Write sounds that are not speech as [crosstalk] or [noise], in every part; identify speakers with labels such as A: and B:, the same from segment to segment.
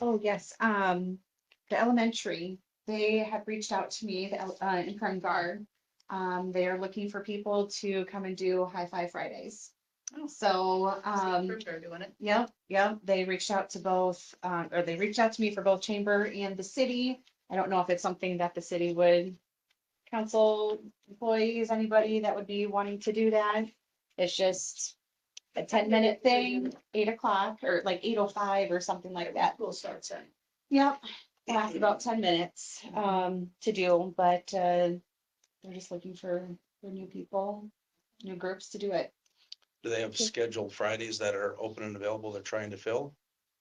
A: Oh, yes, um, the elementary, they have reached out to me, the, el- uh, in Kern Guard. Um, they are looking for people to come and do High Five Fridays.
B: Oh.
A: So, um.
B: Remember doing it.
A: Yep, yep. They reached out to both, um, or they reached out to me for both chamber and the city. I don't know if it's something that the city would council employees, anybody that would be wanting to do that. It's just a ten minute thing, eight o'clock or like eight oh five or something like that.
B: School starts at.
A: Yep, lasts about ten minutes, um, to do, but, uh, they're just looking for, for new people, new groups to do it.
C: Do they have scheduled Fridays that are open and available they're trying to fill?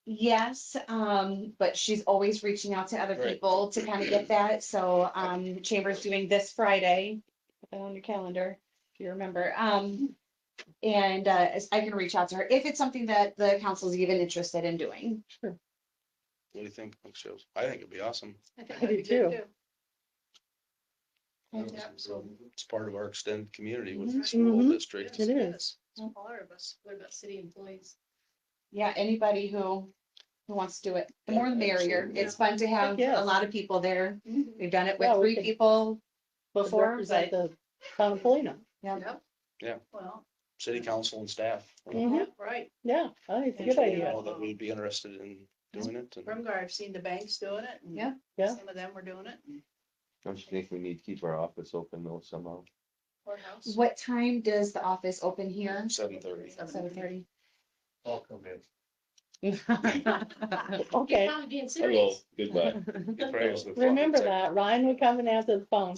A: Yes, um, but she's always reaching out to other
C: Right.
A: people to kind of get that, so, um, Chamber's doing this Friday. Put that on your calendar, if you remember, um, and, uh, as- I can reach out to her if it's something that the council's even interested in doing.
C: What do you think? Mike Shields? I think it'd be awesome.
B: I think
D: I do
B: that'd be good,
D: too.
A: Yeah.
C: It's part of our extended community with
B: Mhm.
C: the school
D: Mhm.
C: district.
D: It is.
B: It's All of us, what about city employees?
A: Yeah, anybody who, who wants to do it, the more the merrier,
C: Absolutely.
A: it's fun to have a
D: yes.
A: lot of people there, we've done it
D: Yeah,
A: with
D: we
A: three
D: could-
A: people before,
D: Represent
A: but,
D: the town of Polina.
A: yeah.
C: Yeah.
B: Well,
C: City council and staff.
A: Mm-hmm.
D: Mhm.
B: right,
D: Yeah, I think it's a
B: Mm-hmm.
D: good
B: Interesting.
D: idea.
C: All that we'd be interested in doing it. and-
B: Remgar, I've seen the banks doing it. and
A: Yeah.
D: Yeah.
B: Some of them were doing it, and
E: Don't you think we need to keep our office open though somehow?
B: courthouse.
A: What time does the office open here?
C: Seven thirty.
A: Seven thirty?
F: I'll come in.
D: Okay,
B: Probably being
E: Hello,
B: serious.
E: goodbye.
D: remember that. Ryan will come and answer the phone.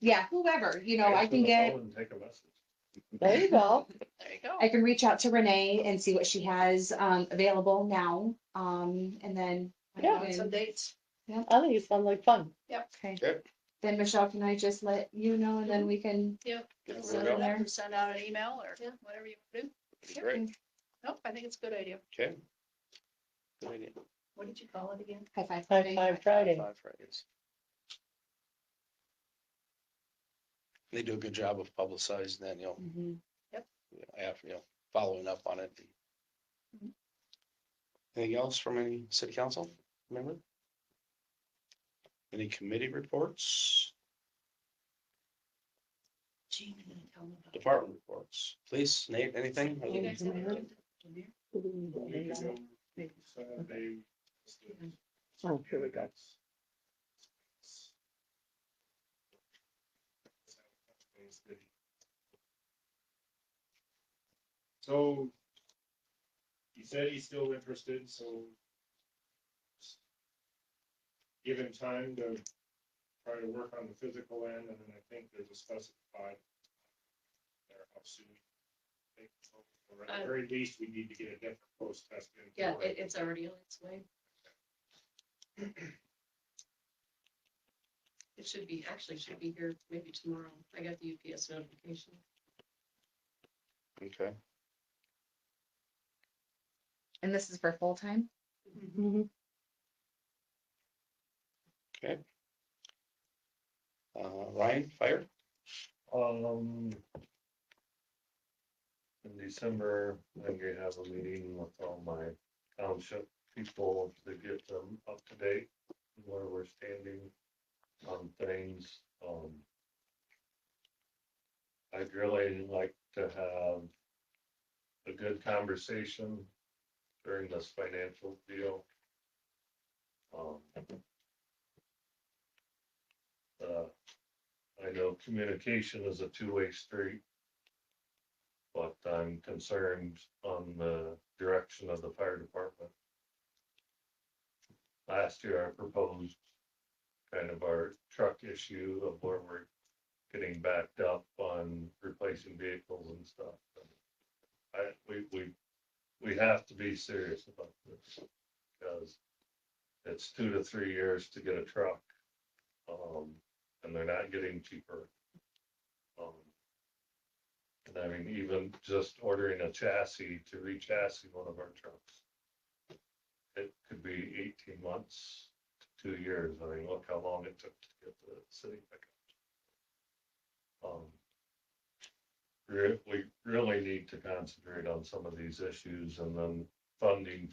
A: Yeah, whoever, you know, I
F: Answer
A: can
F: the
A: get,
F: phone and Take a message.
D: There you go.
A: [laughs]
B: There you go.
A: I can reach out to Renee and see what she has um available now. Um, and then. I
D: Yeah.
B: Want
A: can-
B: Some dates.
D: I think it sounds like fun.
A: Okay.
C: Okay.
A: Then Michelle, can I just let you know and then we can,
C: Get the
B: Send
C: word
B: it
C: out.
B: up or Send out an email or whatever you do.
C: It'd be
D: [laughs]
C: Great.
B: Nope, I think it's a good idea.
C: Okay. Good idea.
B: What did you call it again?
A: high five.
D: High five Friday.
C: Five Fridays. They do a good job of publicizing that, you know,
A: Mhm.
C: after, you know, following up on it. Anything else from any city council member? Any committee reports,
B: Gene, I'm gonna tell them about it.
C: department reports, police, Nate, anything?
B: You guys have a good-
F: Saturday.
D: Oh, here we go.
F: So. He said he's still interested, so. Give him time to try to work on the physical end, and then I think there's a specified. There, how soon. I think, or At the very least, we need to get a different post test. in.
B: Yeah, it, it's already on its way. It should be, actually should be here maybe tomorrow. I got the UPS notification.
C: Okay,
A: And this is for full time?
D: Mhm.
C: uh, Ryan, fire,
F: Um. In December, I'm gonna have a meeting with all my township people to get them up to date, where we're standing on things, um. I'd really like to have a good conversation during this financial deal. Um. Uh, I know communication is a two-way street. But I'm concerned on the direction of the fire department. Last year I proposed kind of our truck issue of where we're getting backed up on replacing vehicles and stuff. I, we, we, we have to be serious about this because it's two to three years to get a truck. Um, and they're not getting cheaper. Um, And I mean, even just ordering a chassis to re-chassis one of our trucks. It could be eighteen months to two years. I mean, look how long it took to get the city pickup. Um, re- We really need to concentrate on some of these issues and then funding